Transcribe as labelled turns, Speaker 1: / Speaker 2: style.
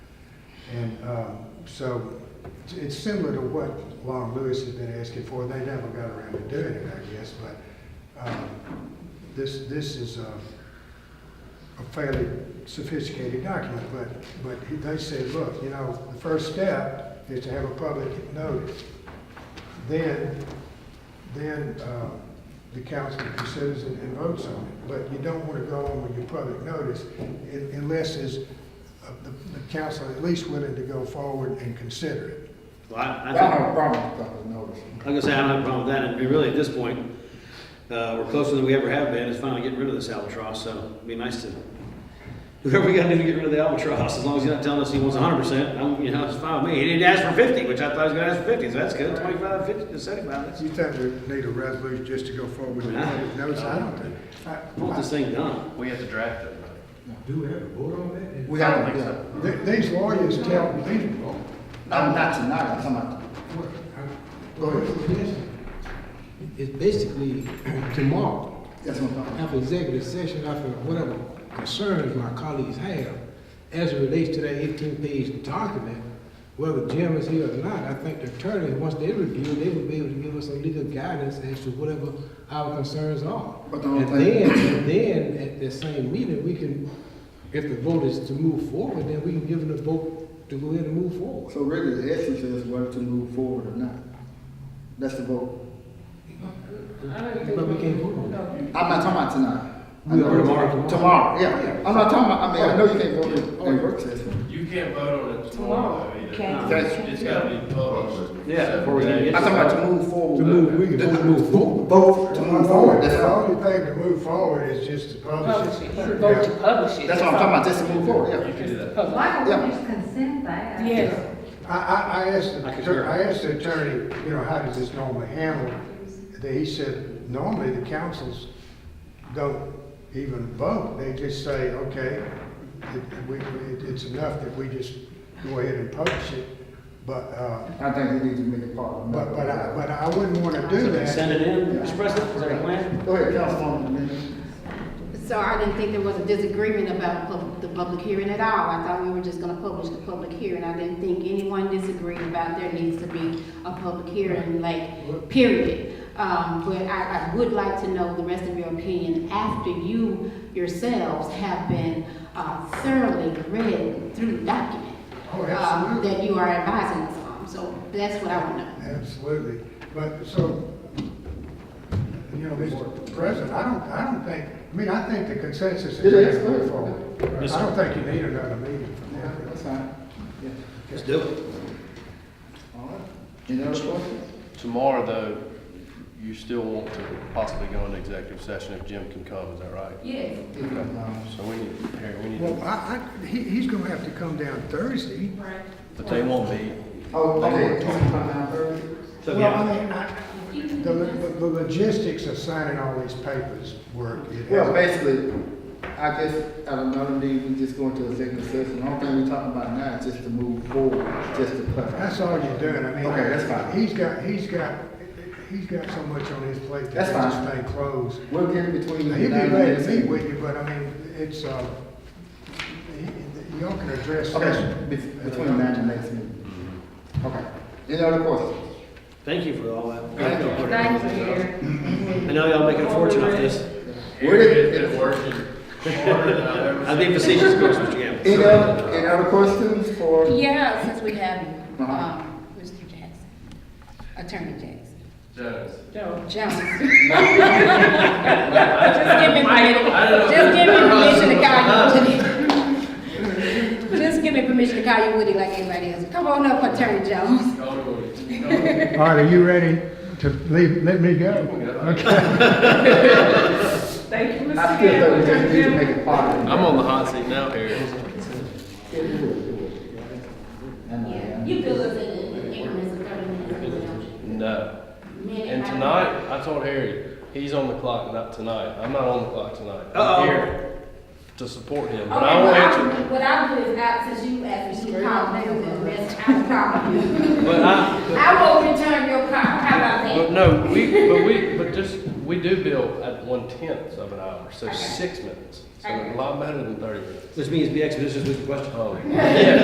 Speaker 1: uh, so it's- it's similar to what Long Lewis has been asking for. They never got around to doing it, I guess, but um, this, this is a a fairly sophisticated document, but, but he- they said, look, you know, the first step is to have a public notice. Then, then uh, the council considers it and votes on it. But you don't want to go on with your public notice un- unless is, uh, the the council at least willing to go forward and consider it.
Speaker 2: Well, I,
Speaker 3: I
Speaker 2: I
Speaker 3: don't
Speaker 2: think,
Speaker 3: have a problem with public notice.
Speaker 2: like I say, I don't have a problem with that, and really, at this point, uh, we're closer than we ever have been, It's finally getting rid of this albatross, so it'd be nice to, whoever we gotta do to get rid of the albatross, as long as he's not telling us he wants hundred percent, I'm, you know, it's fine with me. He didn't ask for fifty, which I thought he was gonna ask for fifty, so that's good, twenty-five, fifty, seventy-five, that's,
Speaker 1: You think we need a resolution just to go forward with the public notice? I don't think.
Speaker 2: I want this
Speaker 1: I-
Speaker 2: thing done.
Speaker 4: We have to draft it.
Speaker 5: Do we have a vote on that?
Speaker 3: We
Speaker 4: I
Speaker 3: have
Speaker 4: don't
Speaker 3: to
Speaker 4: think
Speaker 3: do
Speaker 4: so.
Speaker 3: it.
Speaker 1: I- th- These lawyers tell these
Speaker 3: I'm not tonight, I'm talking about
Speaker 5: What- I- well, it's- It's basically tomorrow,
Speaker 3: That's what I'm talking about.
Speaker 5: after executive session, after whatever concerns my colleagues have, as it relates to that eighteen-page document, whether Jim is here or not, I think the attorney, once they review, they will be able to give us some legal guidance as to whatever our concerns are.
Speaker 3: But the only
Speaker 5: And
Speaker 3: thing-
Speaker 5: then, and then, at the same meeting, we can, if the vote is to move forward, then we can give them the vote to go ahead and move forward.
Speaker 3: So really, the essence is whether to move forward or not. That's the vote.
Speaker 5: But we can't vote on that.
Speaker 3: I'm not talking about tonight. I
Speaker 5: We
Speaker 3: know-
Speaker 5: are tomorrow.
Speaker 3: Tomorrow, yeah. I'm not talking about, I mean, I know you can't vote in- in
Speaker 5: Oh.
Speaker 3: work session.
Speaker 4: You can't vote on it tomorrow though, either.
Speaker 6: Can't.
Speaker 3: That's-
Speaker 4: It's gotta be published.
Speaker 2: Yeah, before we even
Speaker 3: I'm
Speaker 2: get-
Speaker 3: talking about to move
Speaker 5: To
Speaker 3: forward.
Speaker 5: move, we can vote to move forward.
Speaker 3: Vote to move forward, that's
Speaker 1: The
Speaker 3: all.
Speaker 1: only thing to move forward is just to publish
Speaker 6: Publish
Speaker 1: it.
Speaker 6: it, vote to
Speaker 1: Yeah.
Speaker 6: publish it.
Speaker 3: That's what I'm talking about, just to move forward, yeah.
Speaker 4: You can do that.
Speaker 6: Publish.
Speaker 7: Why
Speaker 3: Yeah.
Speaker 7: don't we just consent that?
Speaker 6: Yes,
Speaker 1: I, I, I asked, the
Speaker 2: I can
Speaker 1: atter-
Speaker 2: hear.
Speaker 1: I asked the attorney, you know, how does this normally handle? They- He said, normally the councils don't even vote, they just say, okay, it- we, we- it- it's enough that we just go ahead and publish it, but, uh,
Speaker 3: I think we need to make it part of. the
Speaker 1: but, but I,
Speaker 3: matter.
Speaker 5: uh,
Speaker 1: but I wouldn't wanna do that.
Speaker 2: Send it in, Mr. President, is that a plan?
Speaker 3: Go ahead, Councilwoman. Dominion.
Speaker 8: So I didn't think there was a disagreement about pub- the public hearing at all. I thought we were just gonna publish the public hearing. I didn't think anyone disagreed about there needs to be a public hearing, like, period. Um, but I, I would like to know the rest of your opinion after you yourselves have been, uh, thoroughly read through the document.
Speaker 1: Oh,
Speaker 8: uh,
Speaker 1: absolutely.
Speaker 8: That you are advising us on, so that's what I want to know.
Speaker 1: Absolutely, but so, you know, Mr. President, I don't, I don't think, I mean, I think the consensus is
Speaker 3: It is,
Speaker 1: to move
Speaker 3: yeah.
Speaker 1: forward. I don't think you need another meeting for
Speaker 3: Yeah,
Speaker 1: that.
Speaker 3: that's fine. Yeah.
Speaker 2: Let's do it.
Speaker 3: All right. Any other questions?
Speaker 4: Tomorrow though, you still want to possibly go into executive session if Jim can come, is that right?
Speaker 7: Yes.
Speaker 3: Um,
Speaker 4: So we need, Harry, we need,
Speaker 1: Well, I, I, he, he's gonna have to come down Thursday.
Speaker 7: Right.
Speaker 4: but they won't be.
Speaker 3: Oh, okay. Councilman,
Speaker 2: So,
Speaker 1: Well,
Speaker 2: yeah,
Speaker 1: I mean, I, the, lo- the logistics of signing all these papers work. It
Speaker 3: Well,
Speaker 1: has-
Speaker 3: basically, I guess at another meeting, we just go into executive session. The only thing we're talking about now is just to move forward, just to clarify.
Speaker 1: That's all you're doing, I mean.
Speaker 3: Okay, that's fine.
Speaker 1: He's got, he's got, he's got so much on his plate
Speaker 3: That's
Speaker 1: that this
Speaker 3: fine.
Speaker 1: thing closed.
Speaker 3: We'll get in between.
Speaker 1: Now,
Speaker 3: the
Speaker 1: He'd be
Speaker 3: nine and
Speaker 1: glad to
Speaker 3: ten.
Speaker 1: meet with you, but I mean, it's, uh, y- y'all can address
Speaker 3: Okay,
Speaker 1: this.
Speaker 3: be- between nine and next meeting.
Speaker 1: Mm-hmm.
Speaker 3: Okay. Any other questions?
Speaker 2: thank you for all that.
Speaker 3: Thank you.
Speaker 7: Thank you, Eric.
Speaker 2: I know y'all making a fortune off this.
Speaker 3: Where did-
Speaker 4: It's working harder than I've ever
Speaker 2: I'd be facetious, of course, Mr. Gamble.
Speaker 3: Any other, any other questions for?
Speaker 6: yeah, since we have,
Speaker 3: Uh-huh.
Speaker 6: um, Mr. Jackson, Attorney Jackson.
Speaker 4: Jones.
Speaker 6: Joe. Jones. Just give me permission, just give me permission to call you Woody. Just give me permission to call you Woody like everybody else. Come on up, Attorney Jones.
Speaker 1: All right, are you ready to leave, let me go?
Speaker 7: Thank you,
Speaker 3: I
Speaker 7: Mr.
Speaker 3: still think we just need to
Speaker 7: Gilbert.
Speaker 3: make it part of it.
Speaker 4: I'm on the hot seat now, Harry.
Speaker 3: Yeah, we will, we will. And, uh,
Speaker 8: Yeah, you feel us in in increments of thirty minutes.
Speaker 4: No.
Speaker 8: Minute
Speaker 4: And
Speaker 8: by
Speaker 4: tonight, I told Harry, he's on the clock, not tonight. I'm not on the clock tonight.
Speaker 2: Uh-oh.
Speaker 4: I'm here to support him,
Speaker 8: Okay,
Speaker 4: but I won't
Speaker 8: what
Speaker 4: answer.
Speaker 8: I'll- What I'll do is, I, since you asked me to call, maybe the rest, I'll call you.
Speaker 4: But
Speaker 2: uh,
Speaker 4: I, but-
Speaker 8: I will return your call, how about that?
Speaker 4: But no, we, but we, but just, we do bill at one tenth of an hour, so six minutes. So a lot better than thirty minutes.
Speaker 2: Which means be expeditious with the question.
Speaker 4: Oh, yeah.